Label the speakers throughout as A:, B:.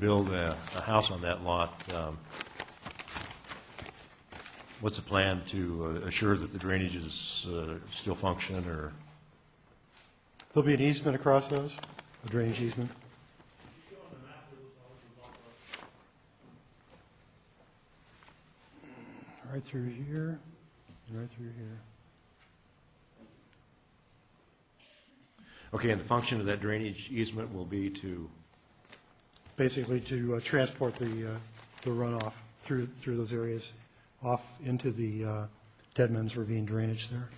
A: build a, a house on that lot, um, what's the plan to uh, assure that the drainage is uh, still function, or,
B: There'll be an easement across those, a drainage easement. Right through here, and right through here.
A: okay, and the function of that drainage easement will be to,
B: Basically to uh, transport the, uh, the runoff through, through those areas, off into the uh, Deadman's Ravine drainage there.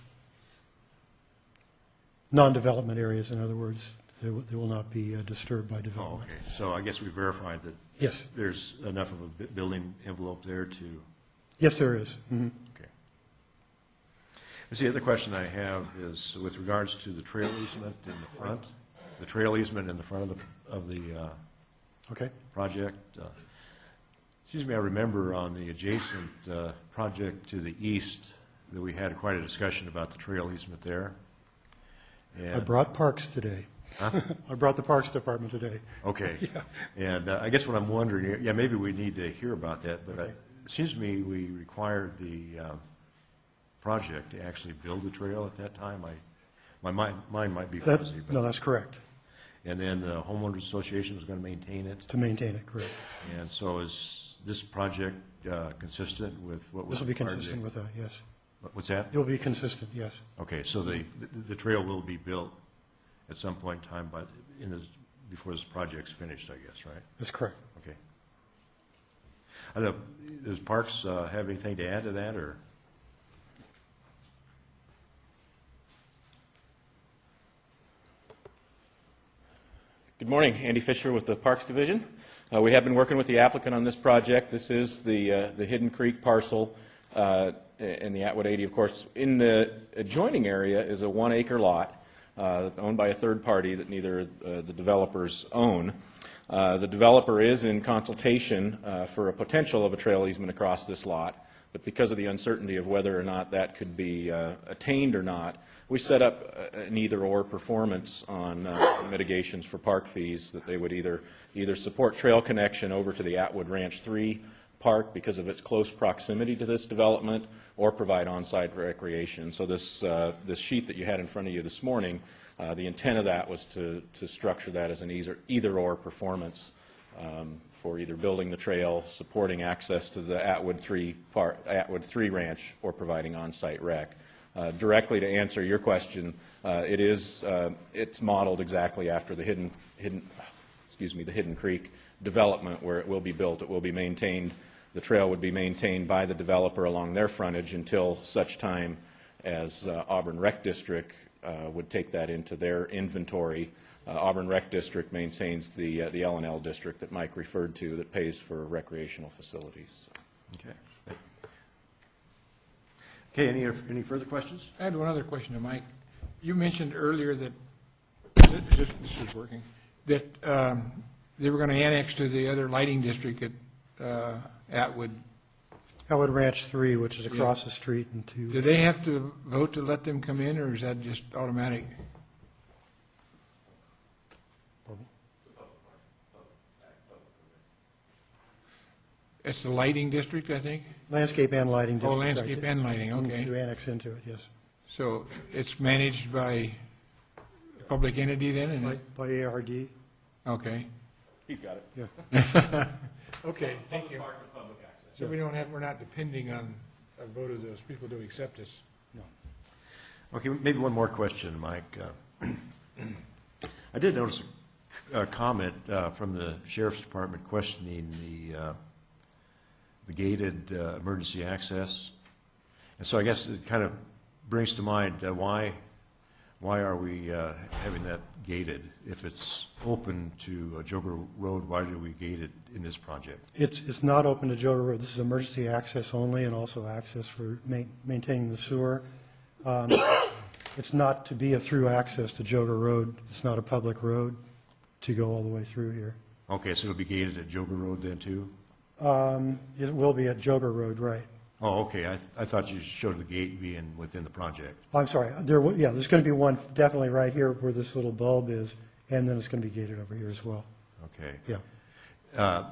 B: Non-development areas, in other words, they will they will not be uh, disturbed by
A: oh,
B: development.
A: okay, so I guess we verified that
B: Yes,
A: there's enough of a bu- building envelope there to,
B: yes, there is. Mhm.
A: okay. Let's See, the other question I have is with regards to the trail easement in the front, the trail easement in the front of the, of the, uh,
B: Okay,
A: project. uh, Excuse me, I remember on the adjacent uh, project to the east that we had quite a discussion about the trail easement there.
B: I
A: And,
B: brought parks today. I brought the Parks Department today.
A: okay. And uh, I guess what I'm wondering, yeah, maybe we need to hear about that, but I-
B: Okay.
A: it seems to me we required the um, project to actually build the trail at that time. I, my mind, mind might be
B: That,
A: fuzzy,
B: no,
A: but,
B: that's correct,
A: and then the homeowners association was going to maintain it.
B: to maintain it, correct.
A: And so is this project uh, consistent with what was?
B: This will be
A: required to-
B: consistent with that, yes.
A: What's that?
B: It'll be consistent, yes.
A: Okay, so the, the- the trail will be built at some point in time, but in this, before this project's finished, I guess, right?
B: That's correct.
A: Okay. I don't know, does Parks uh, have anything to add to that, or?
C: Good morning, Andy Fisher with the Parks Division. Uh, We have been working with the applicant on this project. This is the uh, the Hidden Creek parcel uh, in the Atwood 80, of course. In the adjoining area is a one-acre lot uh, owned by a third party that neither uh, the developers own. Uh, The developer is in consultation uh, for a potential of a trail easement across this lot, but because of the uncertainty of whether or not that could be uh, attained or not, we set up uh, an either-or performance on uh, mitigations for park fees, that they would either, either support trail connection over to the Atwood Ranch 3 park because of its close proximity to this development, or provide on-site recreation. So this, uh, this sheet that you had in front of you this morning, uh, the intent of that was to, to structure that as an either, either-or performance um, for either building the trail, supporting access to the Atwood 3 part, Atwood 3 Ranch, or providing on-site rec. Uh, Directly to answer your question, uh, it is, uh, it's modeled exactly after the Hidden, Hidden, excuse me, the Hidden Creek development where it will be built, it will be maintained, the trail would be maintained by the developer along their frontage until such time as uh, Auburn Rec District uh, would take that into their inventory. Uh, Auburn Rec District maintains the, uh, the L and L district that Mike referred to that pays for recreational facilities.
A: Okay. Okay, any, any further questions?
D: I had one other question to Mike. You mentioned earlier that, this this is working, that um, they were going to annex to the other lighting district at uh, Atwood.
B: Elwood Ranch 3, which is across the street and
D: Do
B: to,
D: they have to vote to let them come in, or is that just automatic? It's the lighting district, I think?
B: landscape and lighting district.
D: Oh,
B: right. Mm-hmm.
D: landscape and lighting, okay.
B: To annex into it, yes.
D: So it's managed by a public entity then, and,
B: By
D: it-
B: by ARD,
D: okay.
C: He's got it.
B: yeah.
D: Okay, thank you.
C: public access.
D: So we don't have, we're not depending on a vote of those people to accept us.
A: Okay, maybe one more question, Mike. Uh, I did notice a a comment uh, from the sheriff's department questioning the, uh, the gated uh, emergency access. And so I guess it kind of brings to mind, uh, why, why are we uh, having that gated? If it's open to uh, Joker Road, why do we gate it in this project?
B: It's, it's not open to Joker Road. This is emergency access only and also access for ma- maintaining the sewer. Um, It's not to be a through access to Joker Road. It's not a public road to go all the way through here.
A: Okay, so it'll be gated at Joker Road then too?
B: Um, It will be at Joker Road, right.
A: Oh, okay, I, I thought you showed the gate being within the project.
B: Oh, I'm sorry, there, wa- yeah, there's going to be one definitely right here where this little bulb is, and then it's going to be gated over here as well.
A: Okay.
B: Yeah.
A: uh,